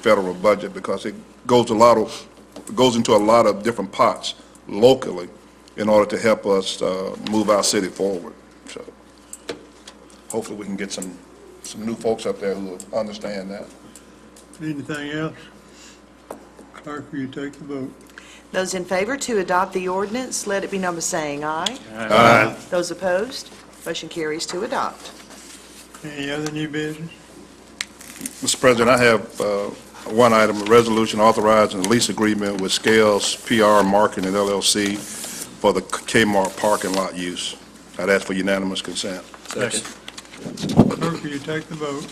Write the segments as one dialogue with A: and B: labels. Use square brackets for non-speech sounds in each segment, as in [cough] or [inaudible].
A: federal budget because it goes a lot of, goes into a lot of different pots locally in order to help us uh, move our city forward. So hopefully we can get some, some new folks up there who will understand that.
B: Anything else? Clerk, will you take the vote?
C: Those in favor to adopt the ordinance, let it be number saying aye. Aye. Those opposed, motion carries to adopt.
B: Any other new business?
A: Mr. President, I have uh, one item, a resolution authorizing a lease agreement with Scales PR Marketing LLC for the Kmart parking lot use. I'd ask for unanimous consent.
B: Clerk, will you take the vote?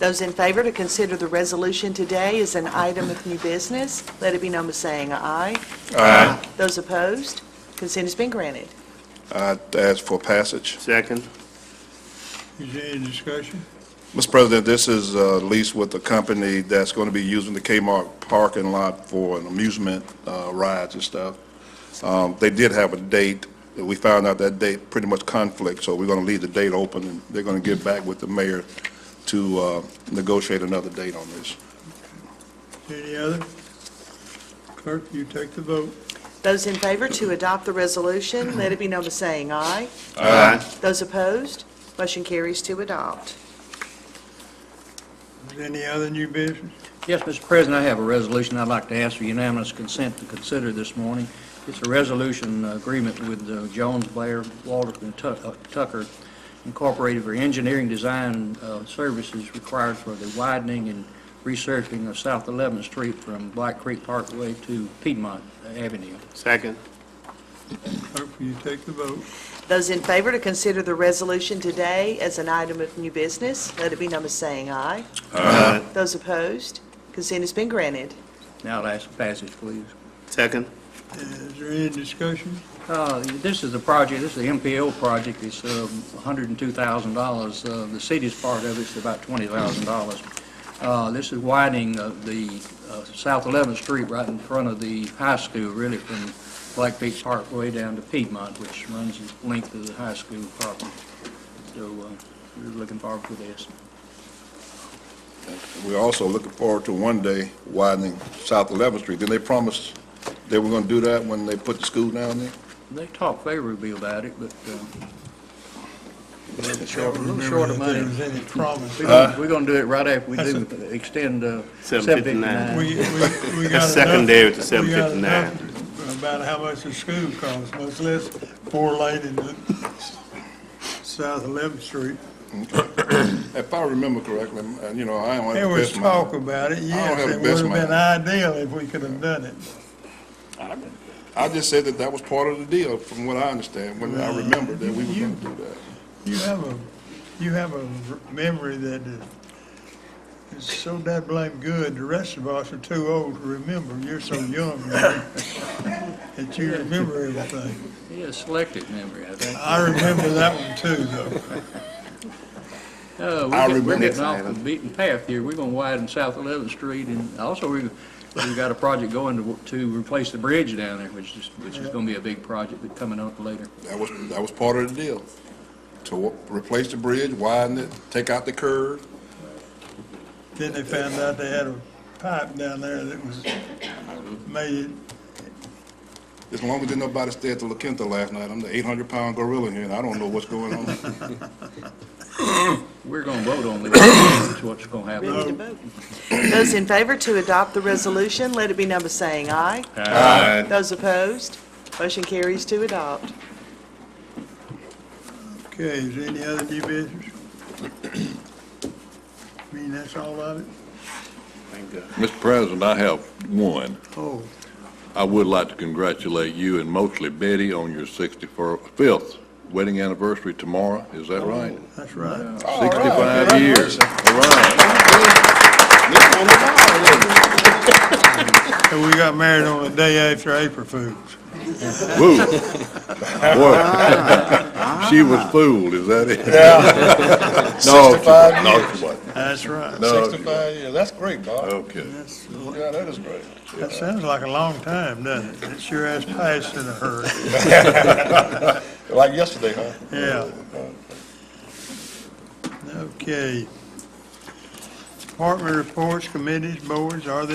C: Those in favor to consider the resolution today as an item of new business, let it be number saying aye. Aye. Those opposed, consent has been granted.
A: I'd ask for passage.
D: Second.
B: Is there any discussion?
A: Mr. President, this is a lease with a company that's going to be using the Kmart parking lot for an amusement uh, rides and stuff. Um, They did have a date, and we found out that date pretty much conflict, so we're going to leave the date open, and they're going to get back with the mayor to uh, negotiate another date on this.
B: Any other? Clerk, will you take the vote?
C: Those in favor to adopt the resolution, let it be number saying aye.
D: Aye.
C: Those opposed, motion carries to adopt.
B: Is there any other new business?
E: Yes, Mr. President, I have a resolution I'd like to ask for unanimous consent to consider this morning. It's a resolution uh, agreement with uh, Jones Blair Walter and Tu- uh, Tucker Incorporated for engineering design uh, services required for the widening and resurfacing of South 11th Street from Black Creek Parkway to Piedmont Avenue.
D: Second.
B: Clerk, will you take the vote?
C: Those in favor to consider the resolution today as an item of new business, let it be number saying aye.
D: Aye.
C: Those opposed, consent has been granted.
E: Now, last passage, please.
D: Second.
B: Is there any discussion?
E: Uh, This is a project, this is the MPO project, it's um, $102,000. Uh, The city's part of it's about $20,000. Uh, This is widening uh, the uh, South 11th Street right in front of the high school, really from Black Beach Parkway down to Piedmont, which runs the length of the high school property. So uh, we're looking forward to this.
A: We're also looking forward to one day widening South 11th Street. Didn't they promise they were going to do that when they put the school down there?
E: They talk favorably about it, but uh,
B: Short,
E: a little short of money.
B: There was any promise.
E: we're gonna- we're going to do it right after we do
A: [laughs]
E: extend uh,
D: 759.
E: 759.
B: We, we, we got
D: That's
E: [laughs]
B: enough.
D: secondary to
B: we got
D: 759.
B: enough About how much the school costs, much less four lane in the South 11th Street.
A: If I remember correctly, and you know, I don't have the
B: There was
A: best memory.
B: talk about it, yes,
A: have the
B: it
A: best
B: would have been ideal if we could have done it.
A: I just said that that was part of the deal, from what I understand, when I remember that we were going to do that.
B: You have a, you have a r- memory that is so that blame good, the rest of us are too old to remember, you're so young, man, that you remember everything.
E: He has selective memory, I think.
B: I remember that one too, though.
A: I
E: Uh, we're getting, we're
A: remember
E: getting
A: that.
E: off the beaten path here. We're gonna widen South 11th Street, and also we, we've got a project going to, to replace the bridge down there, which is, which is gonna be a big project that's coming up later.
A: That was, that was part of the deal. To wa- replace the bridge, widen it, take out the curve.
B: Then they found out they had a pipe down there that was, made it,
A: As long as did nobody stay at the La Quinta last night, I'm the 800-pound gorilla here, and I don't know what's
F: [laughs]
A: going on.
E: We're gonna vote on this, that's what's gonna happen.
C: Ready to vote. Those in favor to adopt the resolution, let it be number saying aye. Those opposed, motion carries to adopt.
B: okay, is there any other new business? [clears throat] I mean, that's all of it?
D: Thank God.
F: Mr. President, I have one.
B: Oh,
F: I would like to congratulate you and mostly Betty on your 65th wedding anniversary tomorrow. Is that right?
B: that's right.
F: 65 years. All right.
B: And we got married on the day after April Fools.
A: [laughs]
F: Woo. Boy,
A: Ah.
F: She was fooled, is that it? Yeah. [laughs] No, she wasn't. No, she wasn't.
B: That's right.
F: No, she wasn't.
A: 65 years, that's great, Bob.
F: Okay.
B: That's,
A: Yeah, that is great.
B: that sounds like a long time, doesn't it? It sure has passed in a hurry,
A: Like yesterday, huh?
B: yeah. Okay. Department reports, committees, boards, are there